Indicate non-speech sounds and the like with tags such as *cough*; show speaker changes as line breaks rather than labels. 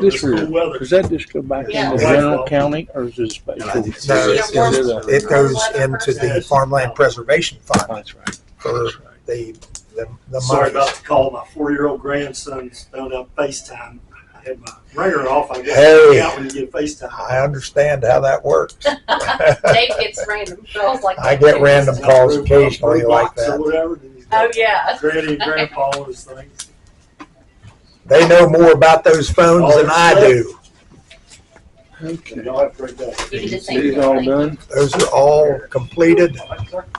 This
cool
is-
weather.
Does that just go back
Yeah.
into Brown County or is it
No, I
special?
think
No,
it's-
it's-
it's- it goes into the Farmland Preservation Fund
That's right.
for the, the, the
Sorry
money.
about the call. My four-year-old grandson's found out FaceTime. I had my ringer off. I guess
Hey.
out when you get FaceTime.
I understand how
*laughs*
that works.
*laughs* Dave gets random calls like
I get random calls
Root box
occasionally like
Or
that.
whatever. then he's
Oh
got
yeah.
Granny and grandpa and his things.
They know more about those phones than I do.
Okay.
Y'all have a great day.
You can just say
These all done?
Those are all completed.